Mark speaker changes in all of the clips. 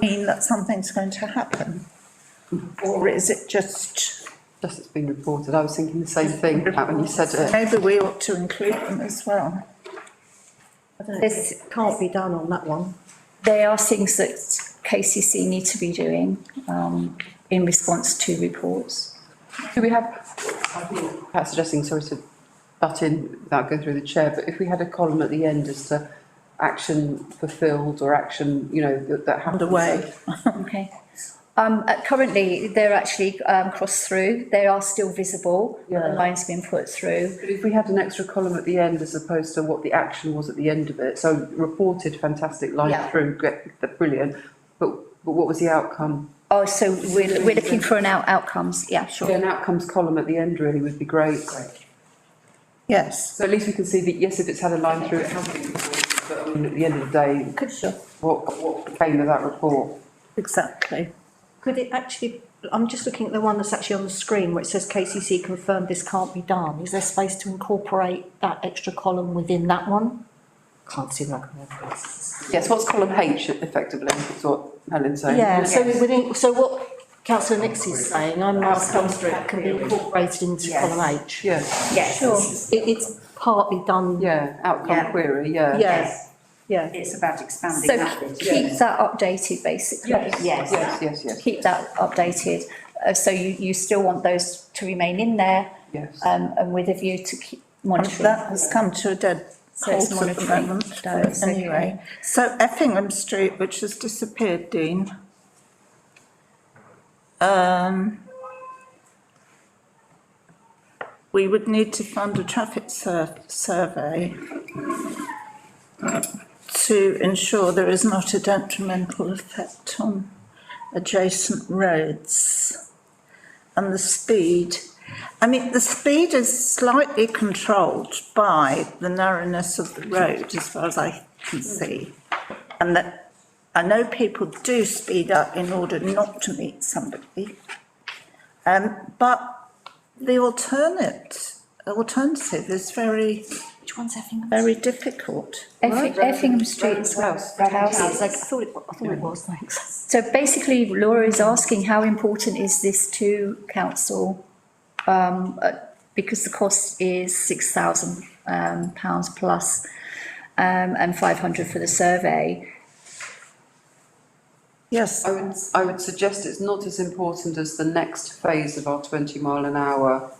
Speaker 1: mean that something's going to happen? Or is it just,
Speaker 2: Just it's been reported, I was thinking the same thing about when you said it.
Speaker 1: maybe we ought to include them as well?
Speaker 3: This can't be done on that one.
Speaker 4: They are things that KCC need to be doing, um, in response to reports.
Speaker 2: Do we have, I think Pat's suggesting, sorry to butt in without going through the chair, but if we had a column at the end as to action fulfilled or action, you know, that, that happened.
Speaker 1: Underway.
Speaker 4: Okay. Um, uh, currently, they're actually, um, crossed through. They are still visible. The
Speaker 2: Yeah.
Speaker 4: line's been put through.
Speaker 2: But if we had an extra column at the end as opposed to what the action was at the end of it, so reported, fantastic, line
Speaker 4: Yeah.
Speaker 2: through, great, that's brilliant, but, but what was the outcome?
Speaker 4: Oh, so we're, we're looking for an out, outcomes. Yeah, sure.
Speaker 2: An outcomes column at the end really would be great.
Speaker 1: Yes,
Speaker 2: So at least we can see that, yes, if it's had a line through, it has been reported, but I mean, at the end of the day,
Speaker 3: Could,
Speaker 2: what, what became of that report?
Speaker 1: exactly.
Speaker 3: could it actually, I'm just looking at the one that's actually on the screen where it says KCC confirmed this can't be done. Is there space to incorporate that extra column within that one? Can't see that.
Speaker 2: Yes, what's column H effectively, is what Helen's saying.
Speaker 3: Yeah, so within, so what councillor Nix is saying, I'm asking if that can be incorporated into column H.
Speaker 2: Yeah,
Speaker 4: Yeah, sure.
Speaker 3: It, it's partly done,
Speaker 2: yeah, outcome
Speaker 5: Yeah.
Speaker 2: query, yeah.
Speaker 3: yes, yeah.
Speaker 5: It's about expanding
Speaker 4: So
Speaker 5: that bit.
Speaker 4: keep that updated, basically.
Speaker 5: Yes.
Speaker 2: Yes, yes, yes,
Speaker 4: Keep that updated. Uh, so you, you still want those to remain in there,
Speaker 2: yes.
Speaker 4: um, and with a view to keep
Speaker 1: And
Speaker 4: monitoring.
Speaker 1: that has come to a dead
Speaker 4: So
Speaker 1: halt
Speaker 4: it's
Speaker 1: at the
Speaker 4: monitoring,
Speaker 1: moment,
Speaker 4: so it's okay.
Speaker 1: anyway. So Effingham Street, which has disappeared, Dean. Um, we would need to fund a traffic sur- survey to ensure there is not a detrimental effect on adjacent roads and the speed. I mean, the speed is slightly controlled by the narrowness of the road, as far as I can see. And that, I know people do speed up in order not to meet somebody. Um, but the alternate, alternative is very,
Speaker 3: Which one's having?
Speaker 1: very difficult.
Speaker 4: Effi- Effingham Street as well.
Speaker 2: House.
Speaker 3: Houses, I thought it, wa- I thought it was, thanks.
Speaker 4: So basically, Laura is asking how important is this to council? Um, uh, because the cost is six thousand, um, pounds plus, um, and five hundred for the survey.
Speaker 1: Yes,
Speaker 2: I would, I would suggest it's not as important as the next phase of our twenty mile an hour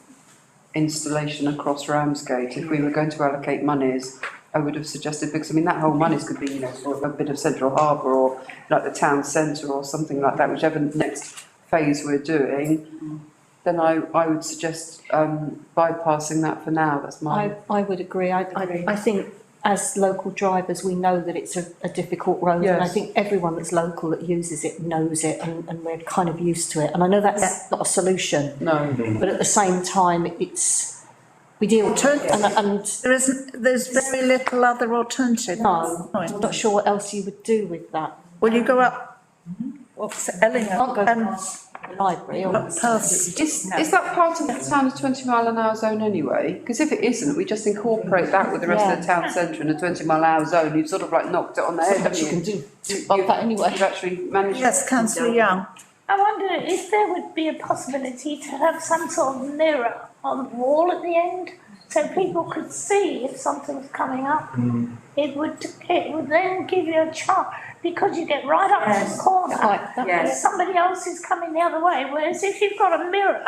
Speaker 2: installation across Ramsgate. If we were going to allocate monies, I would have suggested, because I mean, that whole monies could be, you know, sort of a bit of central harbour or like the town centre or something like that, whichever next phase we're doing. Then I, I would suggest, um, bypassing that for now, that's my,
Speaker 3: I, I would agree, I, I, I think as local drivers, we know that it's a, a difficult road. And I
Speaker 2: Yes.
Speaker 3: think everyone that's local that uses it knows it and, and we're kind of used to it. And I know that's not a solution,
Speaker 2: no.
Speaker 3: but at the same time, it's, we deal with it and, and
Speaker 1: there isn't, there's very little other alternative.
Speaker 3: no, I'm not sure what else you would do with that.
Speaker 1: Well, you go up, what's it, Ellingham?
Speaker 3: Can't Mm-hmm. go
Speaker 1: um,
Speaker 3: past the library or.
Speaker 1: up past,
Speaker 2: Is, is that part of the town's twenty mile an hour zone anyway? Because if it isn't, we just incorporate that with the rest of the town centre in a twenty mile an hour zone, you've sort of like knocked it on the head, haven't you?
Speaker 3: You can do,
Speaker 2: You-
Speaker 3: bump
Speaker 2: you've-
Speaker 3: that anyway.
Speaker 2: You've actually managed.
Speaker 1: yes, councillor Young.
Speaker 6: I wonder if there would be a possibility to have some sort of mirror on the wall at the end, so people could see if something's coming up. It would, it would then give you a chance, because you get right up to the corner,
Speaker 3: Like that.
Speaker 6: and
Speaker 5: Yes.
Speaker 6: somebody else is coming the other way, whereas if you've got a mirror,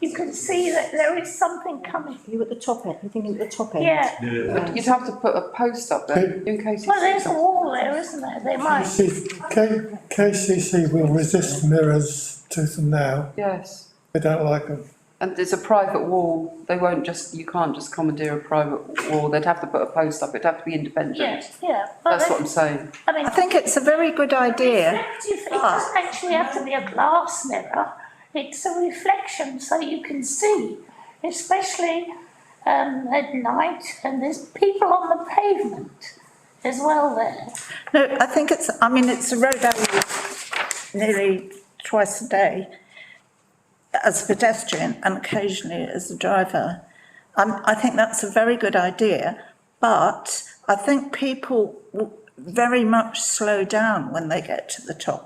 Speaker 6: you can see that there is something coming.
Speaker 3: You at the top end, you thinking at the top end?
Speaker 6: Yeah,
Speaker 2: But You'd have to put a post up there in case.
Speaker 6: well, there's a wall there, isn't there? They might.
Speaker 7: K- KCC will resist mirrors tooth and nail.
Speaker 2: Yes,
Speaker 7: They don't like them.
Speaker 2: and there's a private wall, they won't just, you can't just commandeer a private wall, they'd have to put a post up, it'd have to be
Speaker 6: Yeah,
Speaker 2: independent.
Speaker 6: yeah. But
Speaker 2: That's
Speaker 6: they-
Speaker 2: what I'm saying.
Speaker 6: I mean,
Speaker 1: I think it's a very good idea. Ah.
Speaker 6: Reflective, it doesn't actually have to be a glass mirror, it's a reflection so you can see, especially um, at night, and there's people on the pavement as well there.
Speaker 1: No, I think it's, I mean, it's a road I use nearly twice a day as a pedestrian and occasionally as a driver. Um, I think that's a very good idea, but I think people w- very much slow down when they get to the top.